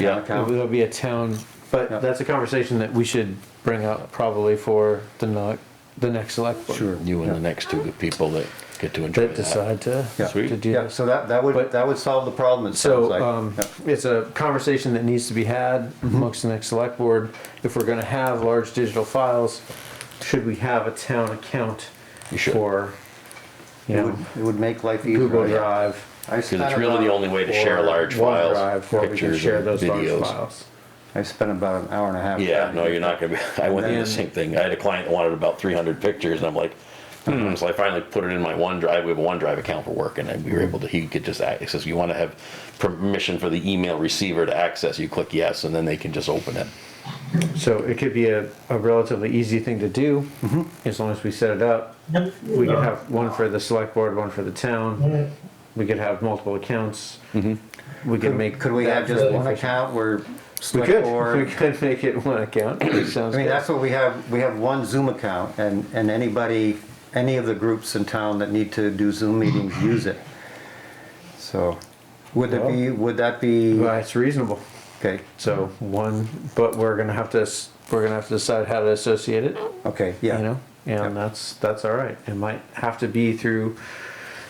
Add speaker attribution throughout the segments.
Speaker 1: Yeah.
Speaker 2: It'll be a town,
Speaker 1: Yeah.
Speaker 2: but that's a conversation that we should bring up probably for the not, the next select board.
Speaker 1: Sure.
Speaker 3: You and
Speaker 1: Yeah.
Speaker 3: the next two people that get to enjoy
Speaker 2: That
Speaker 3: that.
Speaker 2: decide to,
Speaker 1: Yeah.
Speaker 2: to do
Speaker 1: Yeah,
Speaker 2: this.
Speaker 1: so that, that would,
Speaker 2: But-
Speaker 1: that would solve the problem, it sounds
Speaker 2: So,
Speaker 1: like.
Speaker 2: um,
Speaker 1: Yeah.
Speaker 2: it's a conversation that needs to be had
Speaker 3: Mm-hmm.
Speaker 2: amongst the next select board. If we're gonna have large digital files, should we have a town account
Speaker 3: You should.
Speaker 2: for, you
Speaker 1: It
Speaker 2: know,
Speaker 1: would, it would make life easier.
Speaker 2: Google
Speaker 1: yeah.
Speaker 2: Drive?
Speaker 1: I
Speaker 3: Because it's
Speaker 1: spent
Speaker 3: really the
Speaker 1: about-
Speaker 3: only way to share
Speaker 2: or
Speaker 3: large files,
Speaker 2: OneDrive, where we can
Speaker 3: pictures
Speaker 2: share
Speaker 3: and
Speaker 2: those large
Speaker 3: videos.
Speaker 2: files.
Speaker 1: I spent about an hour and a half.
Speaker 3: Yeah,
Speaker 1: trying to
Speaker 3: no,
Speaker 1: get-
Speaker 3: you're not gonna be, I went through the
Speaker 2: And-
Speaker 3: same thing. I had a client that wanted about three hundred pictures and I'm like, hmm, so I finally put it in my OneDrive. We have a OneDrive account for work and I- we were able to, he could just access, you wanna have permission for the email receiver to access, you click yes, and then they can just open it.
Speaker 2: So it could be a, a relatively easy thing to do,
Speaker 1: Mm-hmm.
Speaker 2: as long as we set it up. We could have one for the select board, one for the town. We could have multiple accounts. We could make.
Speaker 1: Mm-hmm. Could we
Speaker 2: that
Speaker 1: have just
Speaker 2: really
Speaker 1: one
Speaker 2: efficient.
Speaker 1: account where
Speaker 2: We
Speaker 1: select
Speaker 2: could, we
Speaker 1: board?
Speaker 2: could make it one account, sounds
Speaker 1: I mean,
Speaker 2: good.
Speaker 1: that's what we have, we have one Zoom account and, and anybody, any of the groups in town that need to do Zoom meetings use it. So, would it be, would that be,
Speaker 2: Well, it's reasonable,
Speaker 1: okay,
Speaker 2: so one, but we're gonna have to, s- we're gonna have to decide how to associate it,
Speaker 1: okay,
Speaker 2: you
Speaker 1: yeah.
Speaker 2: know? And that's, that's all right, it might have to be through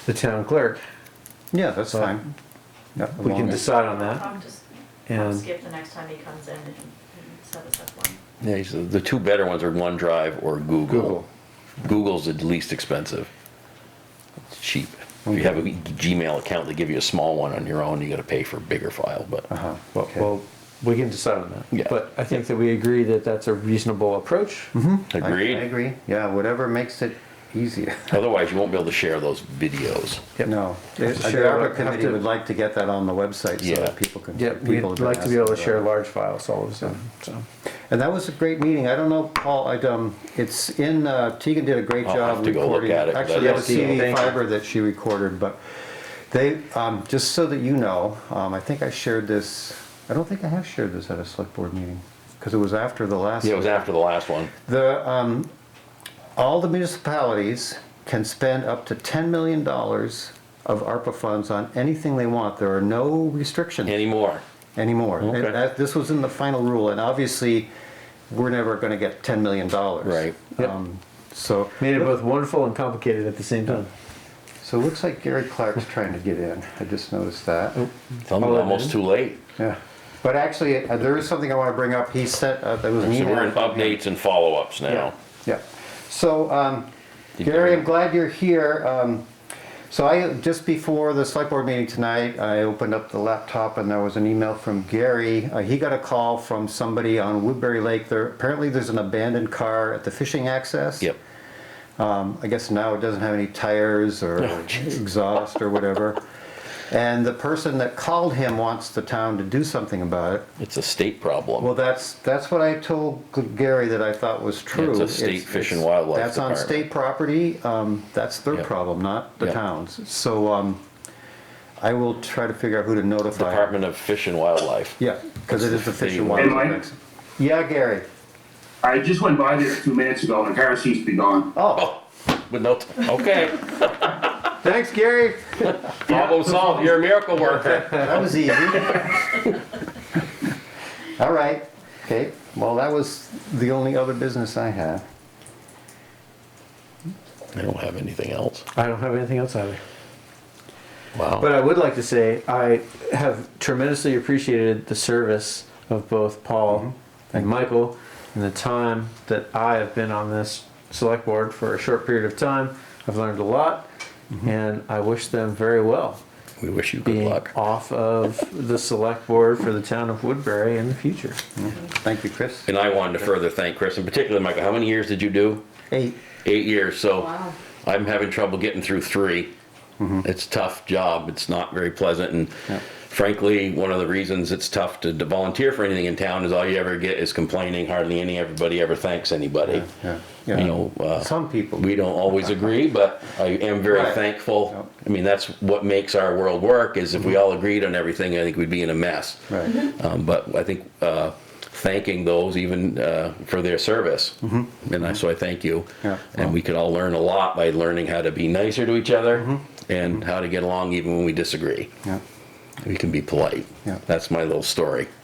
Speaker 2: the town clerk,
Speaker 1: Yeah, that's
Speaker 2: But
Speaker 1: fine. Yeah, as
Speaker 2: we
Speaker 1: long
Speaker 2: can
Speaker 1: as-
Speaker 2: decide on that.
Speaker 4: I'll just, I'll
Speaker 2: And
Speaker 4: skip the next time he comes in and and set us up one.
Speaker 3: Yeah, he said the two better ones are OneDrive or Google.
Speaker 1: Google.
Speaker 3: Google's the least expensive. It's cheap. If you have a Gmail account, they give you a small one on your own, you gotta pay for a bigger file, but
Speaker 1: Uh-huh,
Speaker 2: Well,
Speaker 1: okay.
Speaker 2: well, we can decide on that.
Speaker 3: Yeah.
Speaker 2: But I think that we agree that that's a reasonable approach.
Speaker 1: I- I
Speaker 3: agreed.
Speaker 1: agree, yeah, whatever makes it easier.
Speaker 3: Otherwise, you won't be able to share those videos.
Speaker 2: Yep.
Speaker 1: No, the
Speaker 2: to
Speaker 1: share
Speaker 2: share-
Speaker 1: ARPA committee
Speaker 2: have to-
Speaker 1: would like to get that on the website so
Speaker 3: Yeah.
Speaker 1: that people can.
Speaker 2: Yep, we'd
Speaker 1: people have been
Speaker 2: like to be able to
Speaker 1: asking
Speaker 2: share
Speaker 1: about
Speaker 2: large files all of a sudden, so.
Speaker 1: it. And that was a great meeting. I don't know, Paul, I, um, it's in, uh, Tegan did a great
Speaker 3: I'll
Speaker 1: job
Speaker 3: have to go look
Speaker 1: recording.
Speaker 3: at it, 'cause I
Speaker 1: Actually, that
Speaker 3: don't
Speaker 1: was
Speaker 2: see it.
Speaker 1: CD
Speaker 2: Thank you.
Speaker 1: fiber that she recorded, but they, um, just so that you know, um, I think I shared this, I don't think I have shared this at a select board meeting, because it was after the last.
Speaker 3: Yeah, it was after the last one.
Speaker 1: The, um, all the municipalities can spend up to ten million dollars of ARPA funds on anything they want. There are no restrictions
Speaker 3: Anymore.
Speaker 1: Oh, anymore.
Speaker 3: Okay.
Speaker 1: And that- This was in the final rule, and obviously, we're never gonna get ten million dollars.
Speaker 3: Right.
Speaker 2: Yep.
Speaker 1: Um, so,
Speaker 2: Made it both wonderful and complicated at the same time.
Speaker 1: so it looks like Gary Clark's trying to get in. I just noticed that.
Speaker 3: Tell them
Speaker 2: Oh, it
Speaker 3: almost
Speaker 2: is?
Speaker 3: too late.
Speaker 1: Yeah. But actually, uh, there is something I wanna bring up. He sent, uh, there was an
Speaker 3: So
Speaker 1: email.
Speaker 3: we're in
Speaker 1: from him.
Speaker 3: updates and follow-ups now.
Speaker 1: Yeah. So, um,
Speaker 3: You
Speaker 1: Gary,
Speaker 3: can-
Speaker 1: I'm glad you're here. Um, so I, just before the select board meeting tonight, I opened up the laptop and there was an email from Gary. Uh, he got a call from somebody on Woodbury Lake. There, apparently there's an abandoned car at the fishing access.
Speaker 3: Yep.
Speaker 1: Um, I guess now it doesn't have any tires or
Speaker 3: Oh, geez.
Speaker 1: exhaust or whatever. And the person that called him wants the town to do something about it.
Speaker 3: It's a state problem.
Speaker 1: Well, that's, that's what I told Gary that I thought was true.
Speaker 3: It's a state Fish and Wildlife
Speaker 1: That's on
Speaker 3: Department.
Speaker 1: state property, um, that's their
Speaker 3: Yep.
Speaker 1: problem, not the
Speaker 3: Yep.
Speaker 1: town's. So, um, I will try to figure out who to notify.
Speaker 3: Department of Fish and Wildlife.
Speaker 1: Yeah, because it is the Fish and
Speaker 3: Hey,
Speaker 1: Wildlife.
Speaker 5: Mike?
Speaker 1: Department. Yeah, Gary.
Speaker 5: I just went by there two minutes ago and the car seems to be gone.
Speaker 1: Oh,
Speaker 3: Oh, with no, okay.
Speaker 1: thanks, Gary.
Speaker 3: Problem solved. You're a miracle worker.
Speaker 1: That was easy. All right, okay, well, that was the only other business I have.
Speaker 3: I don't have anything else.
Speaker 2: I don't have anything else either. But
Speaker 3: Wow.
Speaker 2: I would like to say, I have tremendously appreciated the service of both Paul and Michael and the time that I have been on this select board for a short period of time. I've learned a lot and I wish them very well.
Speaker 3: We wish you good
Speaker 2: being
Speaker 3: luck.
Speaker 2: off of the select board for the town of Woodbury in the future.
Speaker 1: Thank you, Chris.
Speaker 3: And I wanted to further thank Chris, in particular, Michael. How many years did you do?
Speaker 1: Eight,
Speaker 3: Eight years, so
Speaker 4: Wow.
Speaker 3: I'm having trouble getting through three.
Speaker 1: Mm-hmm.
Speaker 3: It's a tough job. It's not very pleasant, and frankly, one of the reasons it's tough to, to volunteer for anything in town is all you ever get is complaining. Hardly any everybody ever thanks anybody.
Speaker 1: yeah,
Speaker 3: You
Speaker 1: yeah.
Speaker 3: know, uh,
Speaker 1: Some people.
Speaker 3: we don't always agree, but I am very
Speaker 1: Right.
Speaker 3: thankful. I mean, that's what makes our world work. Is if we
Speaker 1: Mm-hmm.
Speaker 3: all agreed on everything, I think we'd be in a mess.
Speaker 1: Right.
Speaker 3: Um, but I think uh, thanking those even uh, for their service, and I, so I thank you.
Speaker 1: Mm-hmm. Yeah.
Speaker 3: And we could all learn a lot by learning how to be nicer to each other
Speaker 1: Mm-hmm.
Speaker 3: and how to get along even when we disagree.
Speaker 1: Yeah.
Speaker 3: We can be polite.
Speaker 1: Yeah.
Speaker 3: That's my little story.